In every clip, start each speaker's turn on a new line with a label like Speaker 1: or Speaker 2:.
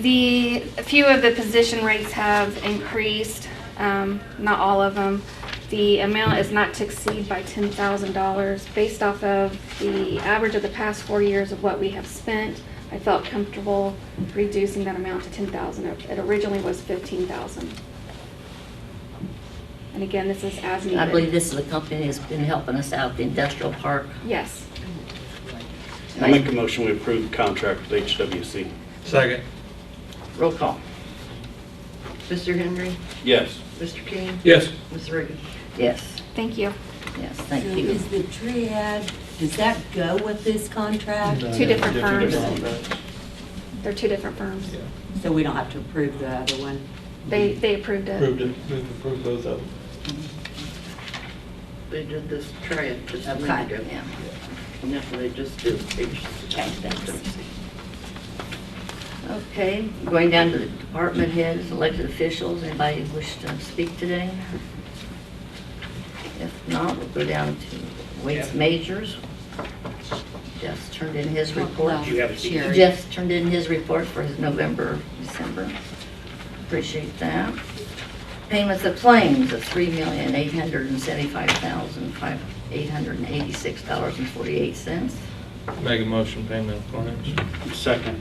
Speaker 1: The, a few of the position rates have increased, um, not all of them. The amount is not to exceed by ten thousand dollars. Based off of the average of the past four years of what we have spent, I felt comfortable reducing that amount to ten thousand. It originally was fifteen thousand. And again, this is as needed.
Speaker 2: I believe this is the company that's been helping us out, the industrial park.
Speaker 1: Yes.
Speaker 3: I make a motion, we approve the contract with HWC.
Speaker 4: Second.
Speaker 2: Roll call. Mr. Henry?
Speaker 3: Yes.
Speaker 2: Mr. King?
Speaker 4: Yes.
Speaker 2: Ms. Reagan? Yes,
Speaker 1: Thank you.
Speaker 2: yes, thank
Speaker 5: So
Speaker 2: you.
Speaker 5: Is the triad, does that go with this contract?
Speaker 1: Two different firms. They're two different firms.
Speaker 5: So we don't have to approve the other one?
Speaker 1: They, they approved it.
Speaker 4: Approved it, move to approve both of them.
Speaker 6: They did this triad just a minute ago.
Speaker 5: Okay.
Speaker 2: Yeah.
Speaker 6: And that's what they just do. They just-
Speaker 2: Okay, thanks. Okay, going down to the department heads, elected officials, anybody wish to speak today? If not, we'll go down to weights majors. Jeff's turned in his report.
Speaker 5: Well,
Speaker 3: You have a seat.
Speaker 5: Sherry.
Speaker 2: Jeff's turned in his report for his November, December. Appreciate that. Payments of claims of three million, eight hundred and seventy-five thousand, five, eight hundred and eighty-six dollars and forty-eight cents.
Speaker 4: Make a motion, payment of claims.
Speaker 3: Second.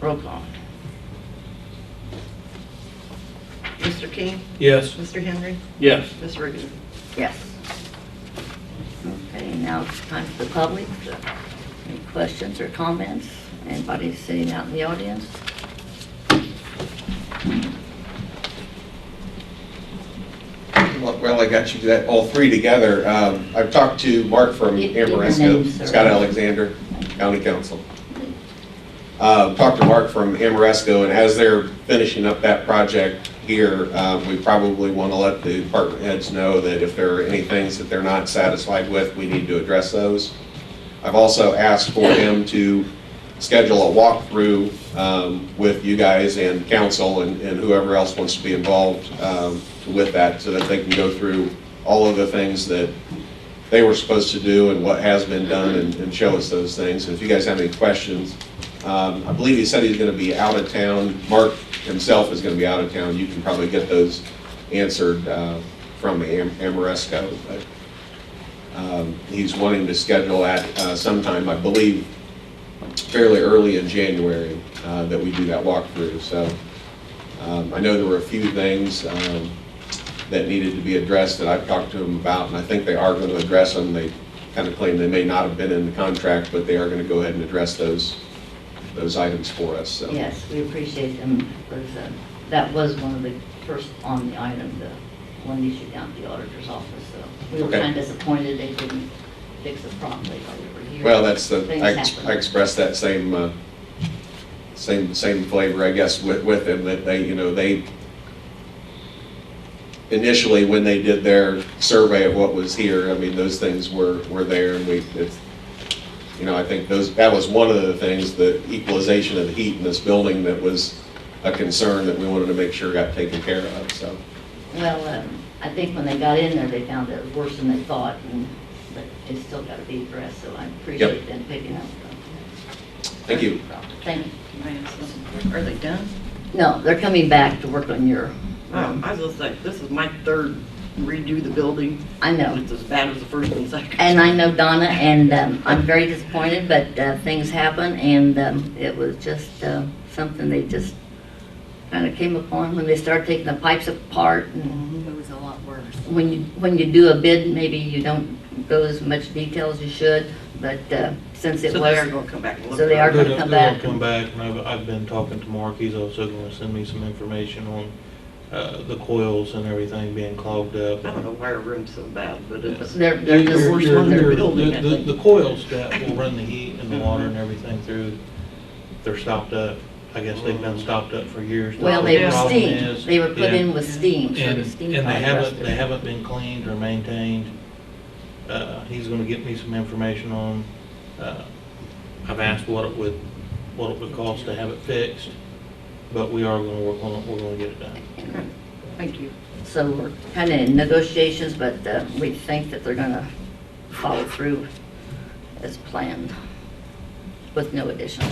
Speaker 2: Roll call.
Speaker 6: Mr. King,
Speaker 4: Yes.
Speaker 6: Mr. Henry,
Speaker 3: Yes.
Speaker 6: Ms. Reagan.
Speaker 2: Yes. Okay, now it's time for the public. Any questions or comments? Anybody sitting out in the audience?
Speaker 7: Well, I got you that, all three together. Um, I've talked to Mark from
Speaker 2: Give- give your
Speaker 7: Amoresco,
Speaker 2: names, sir.
Speaker 7: Scott Alexander, County Council. Uh, Talked to Mark from Amoresco, and as they're finishing up that project here, uh, we probably want to let the department heads know that if there are any things that they're not satisfied with, we need to address those. I've also asked for him to schedule a walkthrough um, with you guys and council and and whoever else wants to be involved um, with that, so that they can go through all of the things that they were supposed to do and what has been done and and show us those things. And if you guys have any questions, um, I believe he said he's going to be out of town. Mark himself is going to be out of town. You can probably get those answered uh, from Am- Amoresco. but um, He's wanting to schedule that uh, sometime, I believe, fairly early in January uh, that we do that walkthrough. So um, I know there were a few things um, that needed to be addressed that I've talked to them about, and I think they are going to address them. They kind of claim they may not have been in the contract, but they are going to go ahead and address those, those items for us, so.
Speaker 2: Yes, we appreciate them. because, uh, That was one of the first on the item, the one issue down at the auditor's office, so we were
Speaker 7: Okay.
Speaker 2: kind of disappointed they didn't fix it promptly while we were here.
Speaker 7: Well, that's the,
Speaker 2: Things
Speaker 7: I ex-
Speaker 2: happen.
Speaker 7: I expressed that same, uh, same, same flavor, I guess, with, with them, that they, you know, they, initially, when they did their survey of what was here, I mean, those things were, were there, and we, it's, you know, I think those, that was one of the things, the equalization of the heat in this building that was a concern that we wanted to make sure got taken care of, so.
Speaker 2: Well, um, I think when they got in there, they found it was worse than they thought, and, but it's still got to be addressed, so I appreciate them picking up.
Speaker 7: Thank you.
Speaker 2: Thank you.
Speaker 6: Can I ask something? Are they done?
Speaker 2: No, they're coming back to work on your, um,
Speaker 6: Oh, I was just like, this is my third redo the building.
Speaker 2: I know.
Speaker 6: It's as bad as the first and second.
Speaker 2: And I know Donna, and um, I'm very disappointed, but uh, things happen, and um, it was just uh, something they just kind of came upon when they started taking the pipes apart. And
Speaker 5: It was a lot worse.
Speaker 2: When you, when you do a bid, maybe you don't go as much detail as you should, but uh, since it
Speaker 6: So they are
Speaker 2: was,
Speaker 6: gonna come back and look.
Speaker 2: So they are
Speaker 6: at it.
Speaker 2: gonna
Speaker 4: They're gonna
Speaker 2: come
Speaker 4: they're
Speaker 2: back.
Speaker 4: gonna uh, come back, and I've, I've been talking to Mark, he's also gonna send me some information on, uh, the coils and everything being clogged up.
Speaker 6: I don't know why our room's so bad, but it's.
Speaker 2: they're,
Speaker 4: Your-
Speaker 2: they're just
Speaker 4: your-
Speaker 6: worst
Speaker 4: your-
Speaker 6: one they're
Speaker 4: your-
Speaker 6: building, I
Speaker 4: The, the-
Speaker 6: think.
Speaker 4: the coils that will run the heat and the water and everything through, they're stopped up. I guess they've been stopped up for years. That's
Speaker 2: Well,
Speaker 4: what
Speaker 2: they
Speaker 4: the
Speaker 2: were
Speaker 4: problem
Speaker 2: steam,
Speaker 4: is.
Speaker 2: they were put
Speaker 4: Yeah.
Speaker 2: in with steam, so
Speaker 4: And,
Speaker 2: the
Speaker 4: and
Speaker 2: steam.
Speaker 4: they
Speaker 2: probably
Speaker 4: haven't,
Speaker 2: rusted.
Speaker 4: they haven't been cleaned or maintained. Uh, he's gonna get me some information on, uh, I've asked what it would, what it would cost to have it fixed, but we are gonna work on it, we're gonna get it done.
Speaker 6: Thank you.
Speaker 2: So we're kind of in negotiations, but uh, we think that they're gonna follow through as planned with no additional